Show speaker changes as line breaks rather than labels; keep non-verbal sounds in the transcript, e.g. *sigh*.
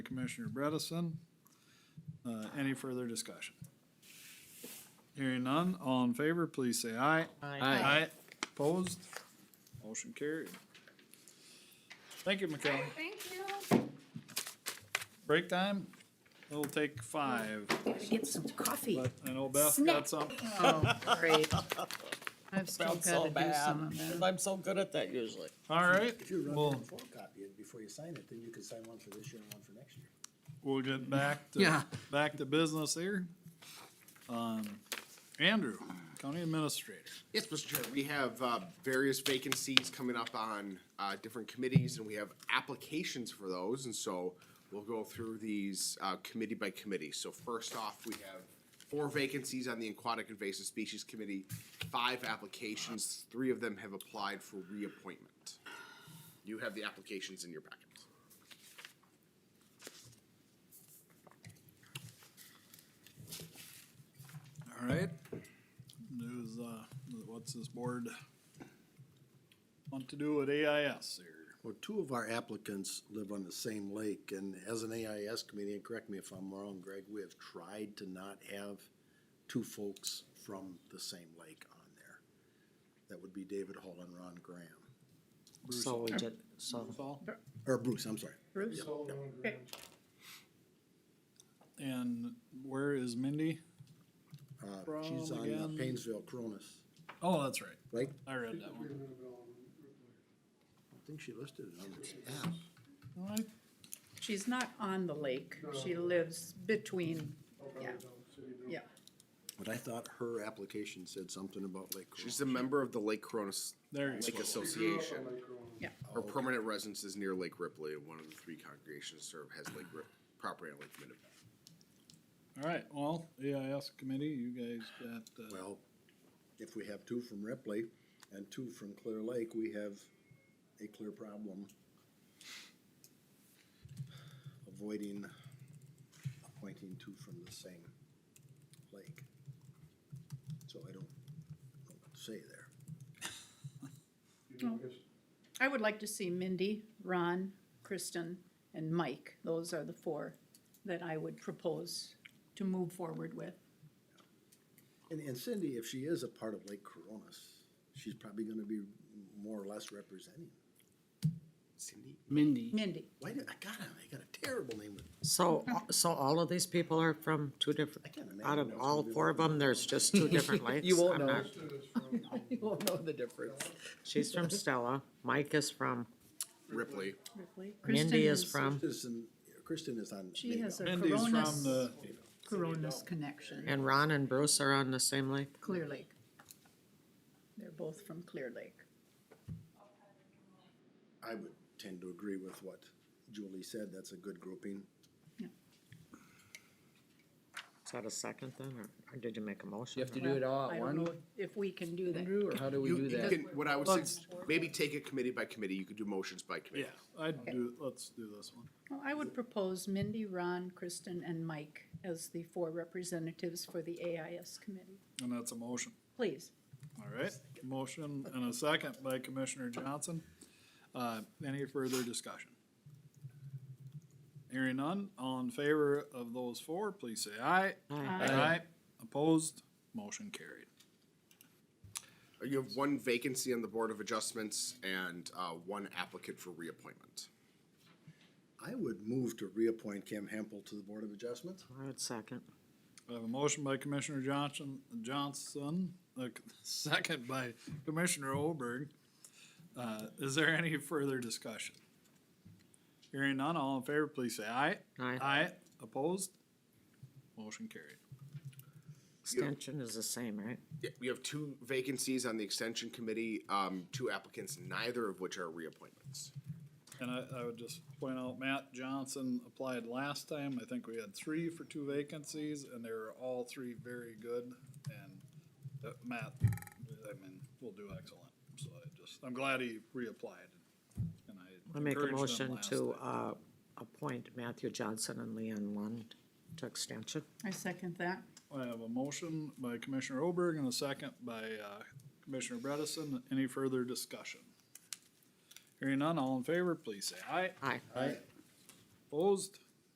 Commissioner Bredesen. Uh, any further discussion? Hearing none, all in favor, please say aye.
Aye.
Opposed? Motion carried. Thank you, McKellar.
Thank you.
Break time? It'll take five,
Gotta get some coffee.
but I know Beth
Snack.
got some.
Oh, great.
*laughs* I've still
Sounds so
gotta do
bad,
some of
'cause
that.
I'm so good at that usually.
All right,
If you run
Well-
it and photocopy it before you sign it, then you can sign one for this year and one for next year.
we'll get back to,
Yeah.
back to business here. Um, Andrew, County Administrator.
Yes, Mr. Chair, we have uh, various vacancies coming up on uh, different committees, and we have applications for those, and so we'll go through these uh, committee by committee. So first off, we have four vacancies on the Aquatic Invasive Species Committee, five applications, three of them have applied for reappointment. You have the applications in your packet.
All right. There's, uh, what's this board want to do with AIS here?
Well, two of our applicants live on the same lake, and as an AIS committee, and correct me if I'm wrong, Greg, we have tried to not have two folks from the same lake on there. That would be David Hall and Ron Graham,
So we did, so,
Saul?
or Bruce, I'm sorry.
Bruce,
And where is Mindy?
Uh,
From
She's on uh,
again?
Painesville, Cronus,
Oh, that's right.
right?
I read that one.
I think she listed it on the app.
All right.
she's not on the lake, she lives between, yeah, yeah.
But I thought her application said something about Lake Cronus.
She's a member of the Lake Cronus
There you
Lake
go.
Association. Her
Oh, okay.
permanent residence is near Lake Ripley, and one of the three congregations served has Lake Rip, property on Lake Minnetonka.
All right, well, AIS committee, you guys got, uh,
Well, if we have two from Ripley and two from Clear Lake, we have a clear problem avoiding appointing two from the same lake. So I don't know what to say there.
I would like to see Mindy, Ron, Kristen, and Mike, those are the four that I would propose to move forward with.
And, and Cindy, if she is a part of Lake Coronas, she's probably gonna be more or less representing.
Cindy?
Mindy.
Mindy,
Why did, I got it, I got a terrible name, but
so, so all of these people are from two different,
I can't imagine.
out of
that's
all
gonna be
four of
like-
them, there's just two different lakes?
You won't
I'm
know.
not-
*laughs* You won't know the difference.
She's from Stella, Mike is from,
Ripley.
Ripley. Kristen
Mindy is from,
Kristen, Kristen is on.
She has a
Mindy's from
Coronas,
the,
Coronas connection,
and Ron and Bruce are on the same lake?
Clear Lake. They're both from Clear Lake.
I would tend to agree with what Julie said, that's a good grouping.
Is that a second then, or- or did you make a motion?
You have to
or-
do it all
I
at
don't
one,
know if we can do that.
Andrew, or how do we
You,
do
you
that?
can, what I would say, is maybe take it committee by committee, you could do motions by
yeah,
committee.
I'd do, let's do this one.
Well, I would propose Mindy, Ron, Kristen, and Mike as the four representatives for the AIS committee.
And that's a motion.
Please.
All right, motion and a second by Commissioner Johnson. Uh, any further discussion? Hearing none, all in favor of those four, please say aye.
Aye.
Opposed, motion carried.
Uh, You have one vacancy on the Board of Adjustments and, uh, one applicant for reappointment.
I would move to reappoint Kim Hempel to the Board of Adjustments.
I would second.
I have a motion by Commissioner Johnson, Johnson, a second by Commissioner Olberg. Uh, is there any further discussion? Hearing none, all in favor, please say aye.
Aye.
Aye, opposed, motion carried.
Extension is the same, right?
Yeah, we have two vacancies on the Extension Committee, um, two applicants, neither of which are reappointments.
And I, I would just point out, Matt Johnson applied last time. I think we had three for two vacancies, and they were all three very good. And uh, Matt, I mean, will do excellent. So I just, I'm glad he reapplied. And I
I make a
encouraged him
motion
last
to,
time.
uh, appoint Matthew Johnson and Leon Lund to extension.
I second that.
uh,
I have a motion by Commissioner Oberg and a second by uh, Commissioner Bredesen. Any further discussion? Hearing none, all in favor, please say aye.
Aye.
Opposed?